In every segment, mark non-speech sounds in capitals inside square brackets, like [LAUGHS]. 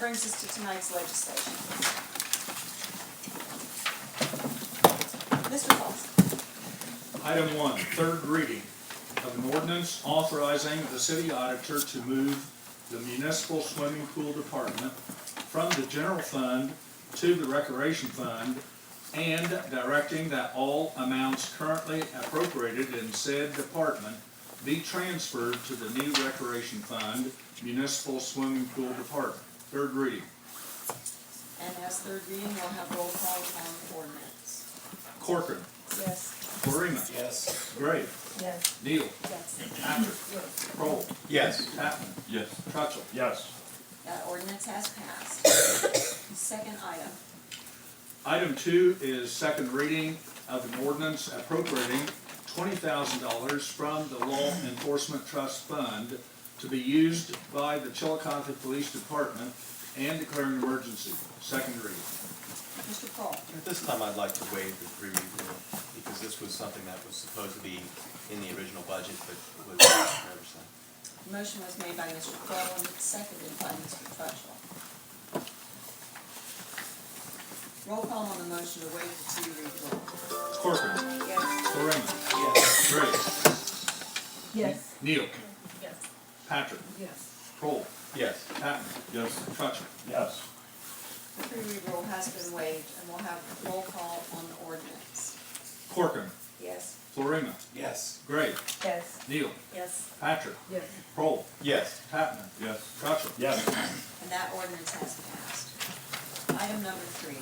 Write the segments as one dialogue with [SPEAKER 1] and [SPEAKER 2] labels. [SPEAKER 1] brings us to tonight's legislation. Mr. Paulson,
[SPEAKER 2] Item one, third reading of an ordinance authorizing the city auditor to move the municipal swimming pool department from the general fund to the recreation fund and directing that all amounts currently appropriated in said department be transferred to the new recreation fund, municipal swimming pool department. Third reading.
[SPEAKER 1] and as third reading, we'll have roll call on the ordinance.
[SPEAKER 2] Corcoran.
[SPEAKER 1] Yes.
[SPEAKER 2] Florina.
[SPEAKER 3] Yes.
[SPEAKER 2] Gray.
[SPEAKER 1] Yes.
[SPEAKER 2] Neal.
[SPEAKER 1] Yes.
[SPEAKER 2] Patrick.
[SPEAKER 1] Yes.
[SPEAKER 2] Kroll.
[SPEAKER 3] Yes.
[SPEAKER 2] Tatman.
[SPEAKER 4] Yes.
[SPEAKER 2] Trutville.
[SPEAKER 4] Yes.
[SPEAKER 1] That ordinance has passed. Second item,
[SPEAKER 2] Item two is second reading of an ordinance appropriating twenty thousand dollars from the Law Enforcement Trust Fund to be used by the Chillicothe Police Department and declaring an emergency. Second reading.
[SPEAKER 1] Mr. Paul.
[SPEAKER 3] At this time, I'd like to waive the three read rule, because this was something that was supposed to be in the original budget, but was never sent.
[SPEAKER 1] Motion was made by Mr. Crowell and seconded by Mr. Trutchell. Roll call on the motion to waive the two-read rule.
[SPEAKER 2] Corcoran.
[SPEAKER 1] Yes.
[SPEAKER 2] Florina.
[SPEAKER 3] Yes.
[SPEAKER 2] Gray.
[SPEAKER 1] Yes.
[SPEAKER 2] Neal.
[SPEAKER 1] Yes.
[SPEAKER 2] Patrick.
[SPEAKER 1] Yes.
[SPEAKER 2] Kroll.
[SPEAKER 3] Yes.
[SPEAKER 2] Tatman.
[SPEAKER 4] Yes.
[SPEAKER 2] Trutville.
[SPEAKER 4] Yes.
[SPEAKER 1] The three-read rule has been waived, and we'll have roll call on the ordinance.
[SPEAKER 2] Corcoran.
[SPEAKER 1] Yes.
[SPEAKER 2] Florina.
[SPEAKER 3] Yes.
[SPEAKER 2] Gray.
[SPEAKER 1] Yes.
[SPEAKER 2] Neal.
[SPEAKER 1] Yes.
[SPEAKER 2] Patrick.
[SPEAKER 1] Yes.
[SPEAKER 2] Kroll.
[SPEAKER 3] Yes.
[SPEAKER 2] Tatman.
[SPEAKER 4] Yes.
[SPEAKER 2] Trutville.
[SPEAKER 4] Yes.
[SPEAKER 1] And that ordinance has passed. Item number three,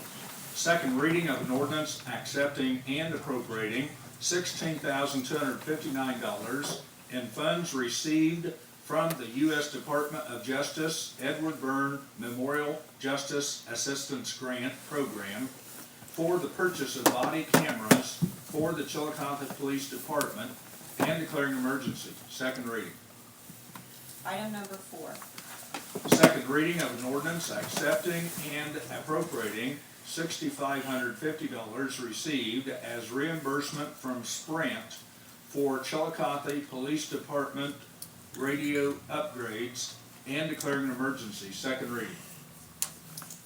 [SPEAKER 2] Second reading of an ordinance accepting and appropriating sixteen thousand two hundred fifty-nine dollars in funds received from the U.S. Department of Justice Edward Byrne Memorial Justice Assistance Grant Program for the purchase of body cameras for the Chillicothe Police Department and declaring emergency. Second reading.
[SPEAKER 1] item number four,
[SPEAKER 2] Second reading of an ordinance accepting and appropriating sixty-five hundred fifty dollars received as reimbursement from Sprint for Chillicothe Police Department radio upgrades and declaring an emergency. Second reading.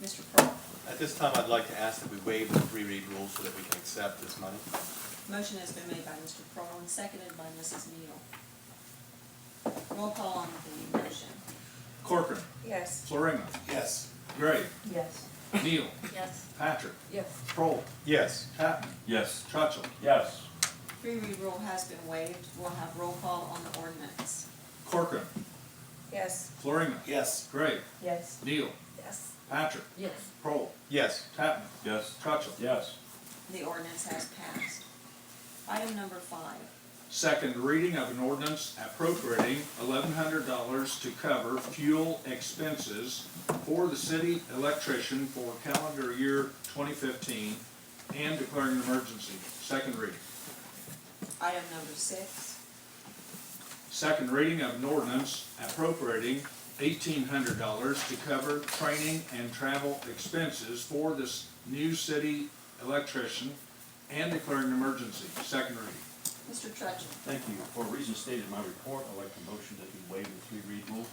[SPEAKER 1] Mr. Pearl.
[SPEAKER 3] At this time, I'd like to ask that we waive the three read rule so that we can accept this money.
[SPEAKER 1] Motion has been made by Mr. Pearl and seconded by Mrs. Neal. Roll call on the motion.
[SPEAKER 2] Corcoran.
[SPEAKER 1] Yes.
[SPEAKER 2] Florina.
[SPEAKER 3] Yes.
[SPEAKER 2] Gray.
[SPEAKER 1] Yes.
[SPEAKER 2] Neal.
[SPEAKER 1] Yes.
[SPEAKER 2] Patrick.
[SPEAKER 1] Yes.
[SPEAKER 2] Prohl.
[SPEAKER 3] Yes.
[SPEAKER 2] Tatman.
[SPEAKER 4] Yes.
[SPEAKER 2] Trutville.
[SPEAKER 4] Yes.
[SPEAKER 1] Three read rule has been waived, we'll have roll call on the ordinance.
[SPEAKER 2] Corcoran.
[SPEAKER 1] Yes.
[SPEAKER 2] Florina.
[SPEAKER 3] Yes.
[SPEAKER 2] Gray.
[SPEAKER 1] Yes.
[SPEAKER 2] Neal.
[SPEAKER 1] Yes.
[SPEAKER 2] Patrick.
[SPEAKER 1] Yes.
[SPEAKER 2] Prohl.
[SPEAKER 3] Yes.
[SPEAKER 2] Tatman.
[SPEAKER 4] Yes.
[SPEAKER 2] Trutville.
[SPEAKER 4] Yes.
[SPEAKER 1] The ordinance has passed. Item number five,
[SPEAKER 2] Second reading of an ordinance appropriating eleven hundred dollars to cover fuel expenses for the city electrician for calendar year twenty fifteen and declaring an emergency. Second reading.
[SPEAKER 1] item number six,
[SPEAKER 2] Second reading of an ordinance appropriating eighteen hundred dollars to cover training and travel expenses for this new city electrician and declaring an emergency. Second reading.
[SPEAKER 1] Mr. Trudgeon.
[SPEAKER 4] Thank you. For reasons stated in my report, I'd like a motion that we waive the three read rule.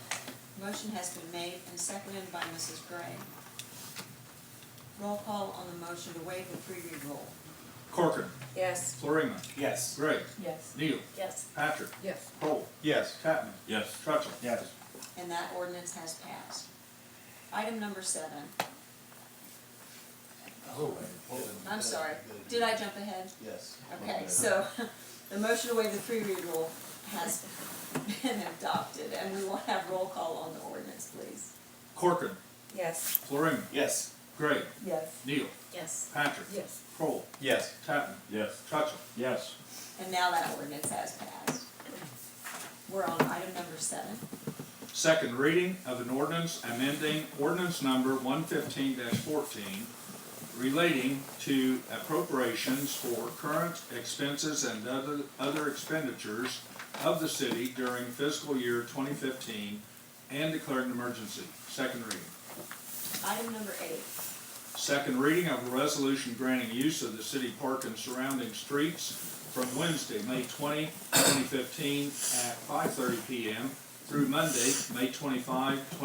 [SPEAKER 1] Motion has been made and seconded by Mrs. Gray. Roll call on the motion to waive the three-read rule.
[SPEAKER 2] Corcoran.
[SPEAKER 1] Yes.
[SPEAKER 2] Florina.
[SPEAKER 3] Yes.
[SPEAKER 2] Gray.
[SPEAKER 1] Yes.
[SPEAKER 2] Neal.
[SPEAKER 1] Yes.
[SPEAKER 2] Patrick.
[SPEAKER 1] Yes.
[SPEAKER 2] Poll.
[SPEAKER 3] Yes.
[SPEAKER 2] Tatman.
[SPEAKER 4] Yes.
[SPEAKER 2] Trutville.
[SPEAKER 4] Yes.
[SPEAKER 1] And that ordinance has passed. Item number seven,
[SPEAKER 3] Oh,
[SPEAKER 1] I'm sorry, did I jump ahead?
[SPEAKER 3] Yes.
[SPEAKER 1] Okay, so [LAUGHS] the motion to waive the three-read rule has been adopted, and we will have roll call on the ordinance, please.
[SPEAKER 2] Corcoran.
[SPEAKER 1] Yes.
[SPEAKER 2] Florina.
[SPEAKER 3] Yes.
[SPEAKER 2] Gray.
[SPEAKER 1] Yes.
[SPEAKER 2] Neal.
[SPEAKER 1] Yes.
[SPEAKER 2] Patrick.
[SPEAKER 1] Yes.
[SPEAKER 2] Kroll.
[SPEAKER 3] Yes.
[SPEAKER 2] Tatman.
[SPEAKER 4] Yes.
[SPEAKER 2] Trutville.
[SPEAKER 4] Yes.
[SPEAKER 1] And now that ordinance has passed. We're on item number seven.
[SPEAKER 2] Second reading of an ordinance amending ordinance number one fifteen fourteen relating to appropriations for current expenses and other, other expenditures of the city during fiscal year twenty fifteen and declaring an emergency. Second reading.
[SPEAKER 1] Item number eight,
[SPEAKER 2] Second reading of a resolution granting use of the city park and surrounding streets from Wednesday, May 20, 2015, at 5:30 PM through Monday, May 25, 2015,